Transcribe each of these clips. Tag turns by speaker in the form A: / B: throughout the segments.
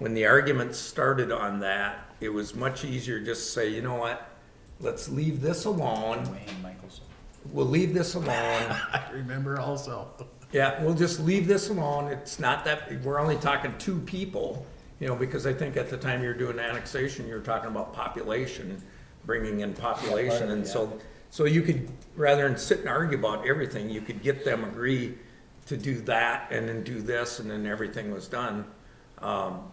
A: when the argument started on that, it was much easier just to say, you know what? Let's leave this alone.
B: Wayne Michelson.
A: We'll leave this alone.
C: I remember also.
A: Yeah, we'll just leave this alone. It's not that, we're only talking two people, you know, because I think at the time you're doing annexation, you're talking about population, bringing in population, and so, so you could, rather than sit and argue about everything, you could get them agree to do that, and then do this, and then everything was done. Um,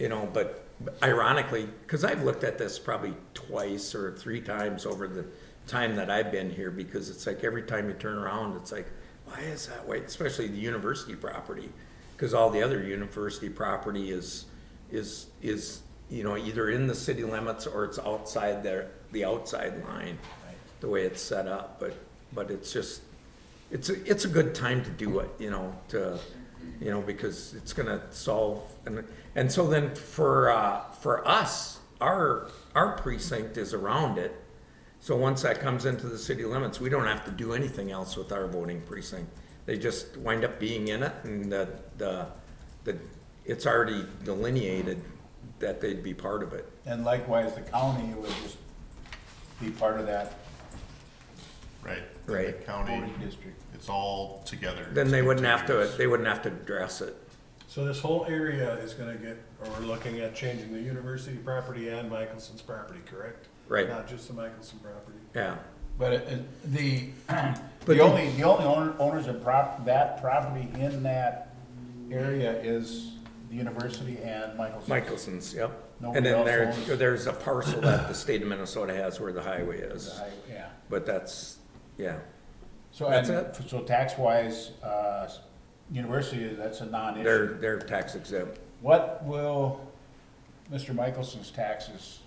A: you know, but ironically, because I've looked at this probably twice or three times over the time that I've been here, because it's like every time you turn around, it's like, why is that way? Especially the university property, because all the other university property is, is, is, you know, either in the city limits or it's outside their, the outside line, the way it's set up, but, but it's just, it's, a it's a good time to do it, you know, to, you know, because it's gonna solve, and, and so then for, uh, for us, our, our precinct is around it. So once that comes into the city limits, we don't have to do anything else with our voting precinct. They just wind up being in it and the, the, the, it's already delineated that they'd be part of it.
B: And likewise, the county would just be part of that
C: Right. and The
A: Right.
C: county,
B: voting district.
C: it's all together.
A: Then they wouldn't have to,
C: It's
A: they wouldn't have to address it.
D: So this whole area is gonna get, or we're looking at changing the university property and Michelson's property, correct?
A: Right.
D: Not just the Michelson property.
A: Yeah.
B: But it- it- the,
A: But
B: the only, the only owner- owners of prop, that property in that area is the university and Michelson.
A: Michelson's, yep.
B: Nobody
A: And then
B: else
A: there's,
B: owns-
A: there's a parcel that the state of Minnesota has where the highway is.
B: I- Yeah,
A: But that's, yeah,
B: so,
A: That's
B: and, so tax-wise, uh, university, that's a non-issue.
A: they're, they're tax exempt.
B: What will Mr. Michelson's taxes,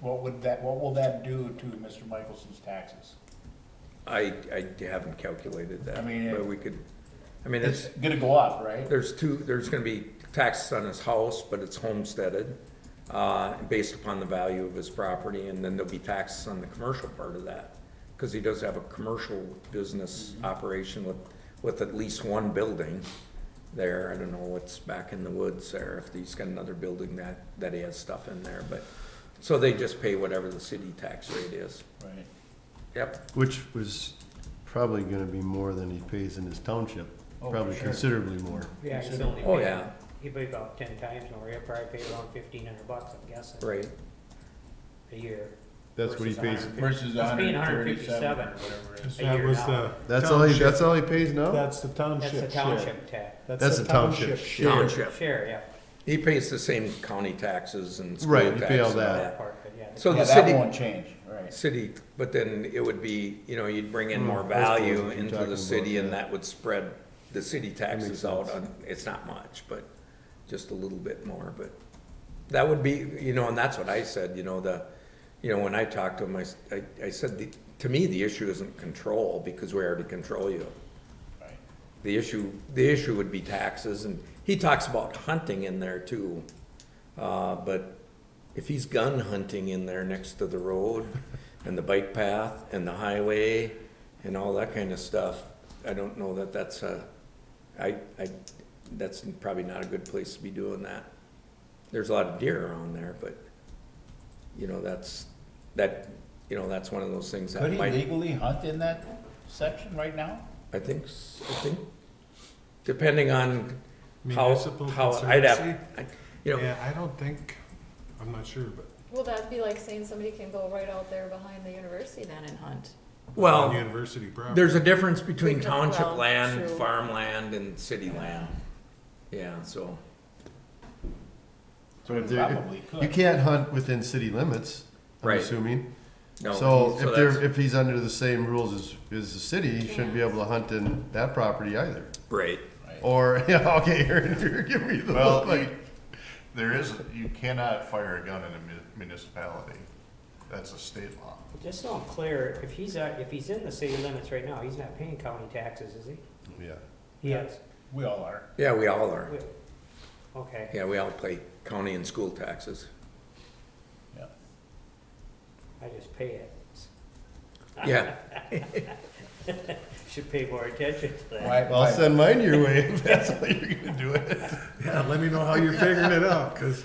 B: what would that, what will that do to Mr. Michelson's taxes?
A: I, I haven't calculated that.
B: I mean,
A: But
B: it-
A: we could, I mean,
B: It's
A: it's,
B: gonna go up, right?
A: there's two, there's gonna be taxes on his house, but it's homesteaded, uh, based upon the value of his property, and then there'll be taxes on the commercial part of that. Cause he does have a commercial business operation with, with at least one building there. I don't know what's back in the woods there, if he's got another building that, that he has stuff in there, but, so they just pay whatever the city tax rate is.
B: Right.
A: Yep,
E: Which was probably gonna be more than he pays in his township,
B: Oh, for
E: probably
B: sure.
E: considerably more.
F: Yeah, he's
B: Consider-
F: only.
A: oh
F: paid-
A: yeah,
F: He paid about ten times more, he probably paid around fifteen hundred bucks, I'm guessing.
A: right.
F: A year.
E: That's what he pays,
F: Versus a hundred
B: Versus
F: fifty- It's being
B: 137
F: 157 or whatever it is, a year now.
E: that's all he, that's all he pays now?
D: That's the
F: That's the
D: township share.
F: township tax,
E: That's the township share.
A: Township.
F: share, yeah,
A: He pays the same county taxes and school
E: Right,
A: taxes.
E: you pay all
A: and
E: that.
F: that part, but yeah.
A: So
B: Yeah,
A: the
B: that
A: city,
B: won't change, right.
A: city, but then it would be, you know, you'd bring in more
E: Hmm, that's the ones
A: value
E: you're
A: into
E: talking
A: the
E: about,
A: city and
E: yeah.
A: that would spread the city taxes out
E: sense.
A: on, it's not much, but just a little bit more, but that would be, you know, and that's what I said, you know, the, you know, when I talked to him, I, s- I- I said, "The- to me, the issue isn't control because we already control you.
B: Right.
A: The issue, the issue would be taxes, and he talks about hunting in there too. Uh, but if he's gun hunting in there next to the road and the bike path and the highway and all that kind of stuff, I don't know that that's a, I, I, that's probably not a good place to be doing that. There's a lot of deer around there, but, you know, that's, that, you know, that's one of those things that
B: Could he
A: might,
B: legally hunt in that section right now?
A: I think, s- I think, depending on how,
D: Municipal
A: how, I'd have,
D: conservancy?
A: I- you know,
D: Yeah, I don't think, I'm not sure, but
G: Well, that'd be like saying somebody can go right out there behind the university then and hunt.
A: well.
D: on university property.
A: um, There's a difference between
G: Between-
A: township
G: well,
A: land,
G: true.
A: farmland, and city land. Yeah, so,
E: So if they're,
B: Probably
E: you
B: could.
E: can't hunt within city limits, I'm
A: Right.
E: assuming.
A: no.
E: So if
A: that's-
E: they're, if he's under the same rules as, as the city, he shouldn't be able to hunt in that property either.
A: Right,
E: Or, yeah, okay, you're, you're giving me the
C: Well,
E: look like.
C: There is, you cannot fire a gun in a mu- municipality. That's a state law.
F: Just so I'm clear, if he's, uh, if he's in the city limits right now, he's not paying county taxes, is he?
E: Yeah.
F: He is.
B: We all are.
A: yeah, we all are.
F: Okay,
A: Yeah, we all pay county and school taxes.
B: Yeah.
F: I just pay it.
A: Yeah,
F: Should pay more attention to that.
B: Why-
E: Well, I'll
B: why-
E: send mine your way if that's how you're gonna do it.
D: Yeah, let me know how you're figuring it out, cause